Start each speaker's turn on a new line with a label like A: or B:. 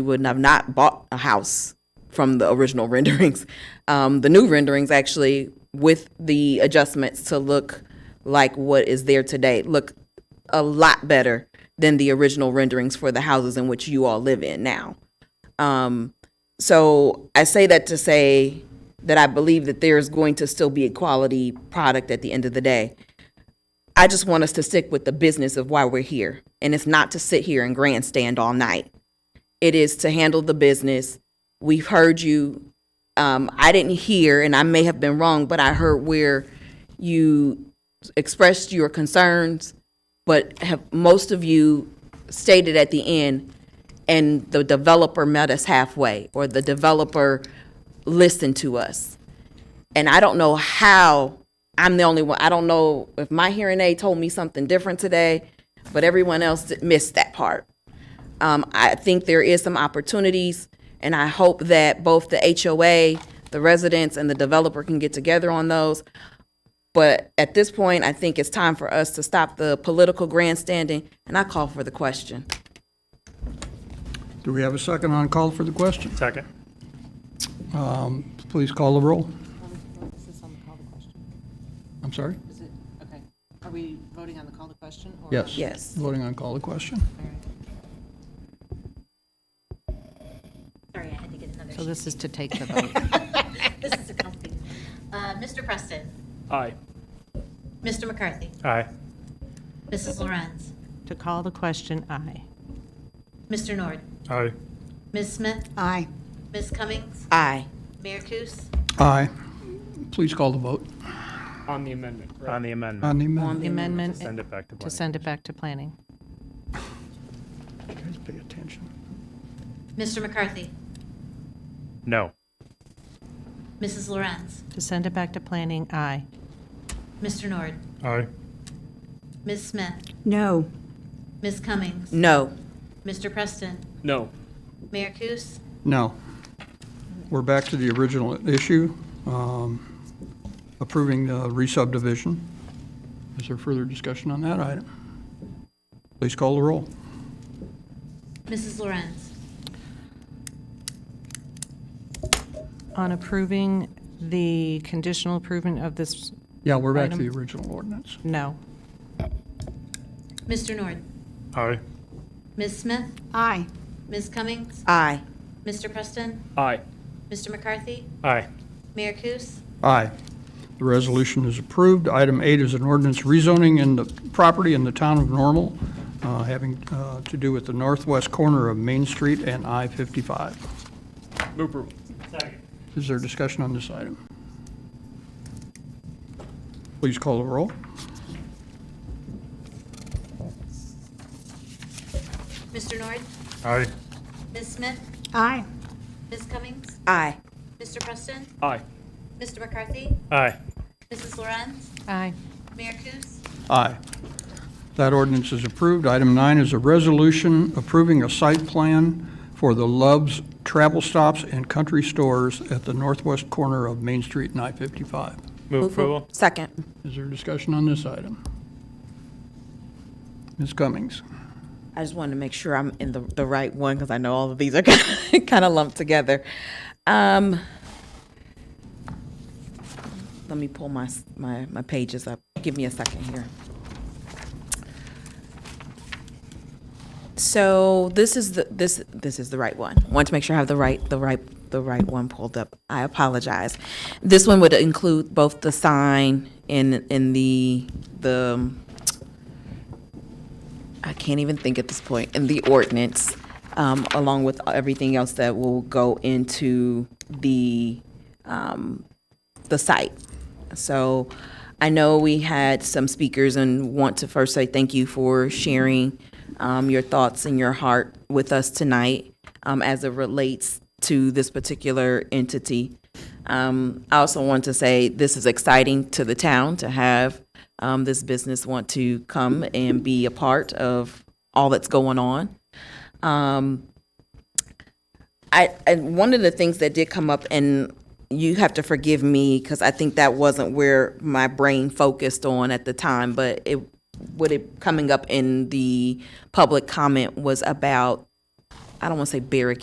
A: we would have not bought a house from the original renderings. Um, the new renderings actually, with the adjustments to look like what is there today, look a lot better than the original renderings for the houses in which you all live in now. Um, so I say that to say that I believe that there is going to still be a quality product at the end of the day. I just want us to stick with the business of why we're here. And it's not to sit here and grandstand all night. It is to handle the business. We've heard you. Um, I didn't hear, and I may have been wrong, but I heard where you expressed your concerns, but have most of you stated at the end, and the developer met us halfway, or the developer listened to us. And I don't know how I'm the only one. I don't know if my hearing aid told me something different today, but everyone else missed that part. Um, I think there is some opportunities, and I hope that both the HOA, the residents, and the developer can get together on those. But at this point, I think it's time for us to stop the political grandstanding, and I call for the question.
B: Do we have a second on call for the question?
C: Second.
B: Um, Please call the roll.
D: Is this on the call to question?
B: I'm sorry?
D: Is it, okay, are we voting on the call to question? or-
B: Yes.
A: Yes.
B: Voting on call the question.
D: All right.
E: Sorry, I had to get another
D: So
E: sheet.
D: this is to take the vote.
E: This is a comfy. Uh, Mr. Preston,
C: Aye.
E: Mr. McCarthy,
C: Aye.
E: Mrs. Lorenz,
D: To call the question, aye.
E: Mr. Nord,
C: Aye.
E: Ms. Smith,
D: Aye.
E: Ms. Cummings,
A: Aye.
E: Mayor Kus,
B: Aye. Please call the vote
C: On the amendment. On the amendment.
B: on the amendment.
D: The amendment
C: Send it back to
D: to
C: planning.
D: send it back to planning.
B: Guys, pay attention.
E: Mr. McCarthy,
C: No.
E: Mrs. Lorenz,
D: To send it back to planning, aye.
E: Mr. Nord,
C: Aye.
E: Ms. Smith,
F: No.
E: Ms. Cummings,
A: No.
E: Mr. Preston,
C: No.
E: Mayor Kus,
B: No. We're back to the original issue, um, approving the re-subdivision. Is there further discussion on that item? Please call the roll.
E: Mrs. Lorenz,
D: On approving the conditional improvement of this,
B: Yeah, we're back to the original ordinance.
D: no.
E: Mr. Nord,
C: Aye.
E: Ms. Smith,
F: Aye.
E: Ms. Cummings,
A: Aye.
E: Mr. Preston,
C: Aye.
E: Mr. McCarthy,
C: Aye.
E: Mayor Kus,
B: Aye. The resolution is approved. Item eight is an ordinance rezoning in the property in the town of Normal, uh, having uh, to do with the northwest corner of Main Street and I-55.
C: Move approval. Second.
B: Is there discussion on this item? Please call the roll.
E: Mr. Nord,
C: Aye.
E: Ms. Smith,
F: Aye.
E: Ms. Cummings,
A: Aye.
E: Mr. Preston,
C: Aye.
E: Mr. McCarthy,
C: Aye.
E: Mrs. Lorenz,
D: Aye.
E: Mayor Kus,
B: Aye. That ordinance is approved. Item nine is a resolution approving a site plan for the Love's Travel Stops and Country Stores at the northwest corner of Main Street and I-55.
C: Move approval.
A: Second.
B: Is there discussion on this item? Ms. Cummings?
A: I just wanted to make sure I'm in the, the right one because I know all of these are kind of lumped together. Um, let me pull my, s- my, my pages up. Give me a second here. So this is the, this, this is the right one. Want to make sure I have the right, the right, the right one pulled up. I apologize. This one would include both the sign and, and the, the, um, I can't even think at this point, in the ordinance, um, along with everything else that will go into the, um, the site. So I know we had some speakers and want to first say thank you for sharing, um, your thoughts and your heart with us tonight, um, as it relates to this particular entity. Um, I also want to say this is exciting to the town to have um, this business want to come and be a part of all that's going on. Um, I, and one of the things that did come up, and you have to forgive me because I think that wasn't where my brain focused on at the time, but it what it coming up in the public comment was about I don't want to say barricade